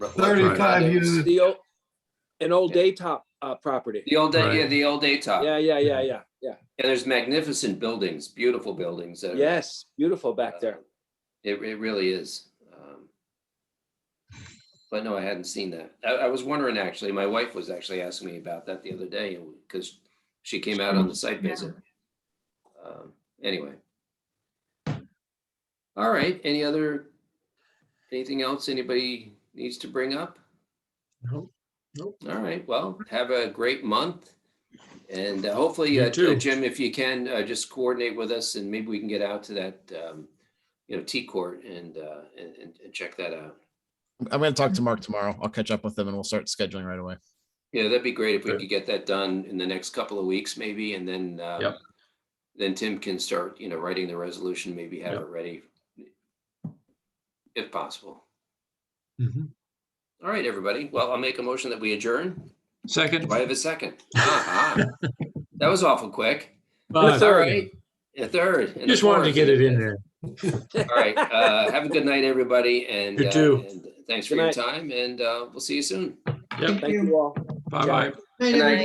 Right. Thirty-five It's units. The old, an old daytop uh, property. The old, Right. day- yeah, the old day top. Yeah, yeah, yeah, yeah, yeah. And there's magnificent buildings, beautiful buildings. that are, Yes, beautiful uh, back there. It, it really is. Um, But no, I hadn't seen that. I, I was wondering, actually, my wife was actually asking me about that the other day because she came out on the site visit. Um, Anyway. All right, any other, anything else anybody needs to bring up? No, nope. All right, well, have a great month. And uh, hopefully, You uh, too. Jim, if you can, uh, just coordinate with us and maybe we can get out to that, um, you know, T court and, uh, and, and- and check that out. I'm going to talk to Mark tomorrow. I'll catch up with him and we'll start scheduling right away. Yeah, that'd be great if we Okay. could get that done in the next couple of weeks, maybe, and then, uh, Yep. then Tim can start, you know, writing the resolution, maybe have Yep. it ready if possible. Mhm. All right, everybody. Well, I'll make a motion that we adjourn. Second. Do I have a second? Ah, ah. That was awful quick. Five. That's all right. A third. and a Just wanted to fourth. get it in there. All right. Uh, have a good night, everybody. And, You uh, too. and thanks for Good your night. time and, uh, we'll see you soon. Yep. Thank you all. Bye-bye. Good night.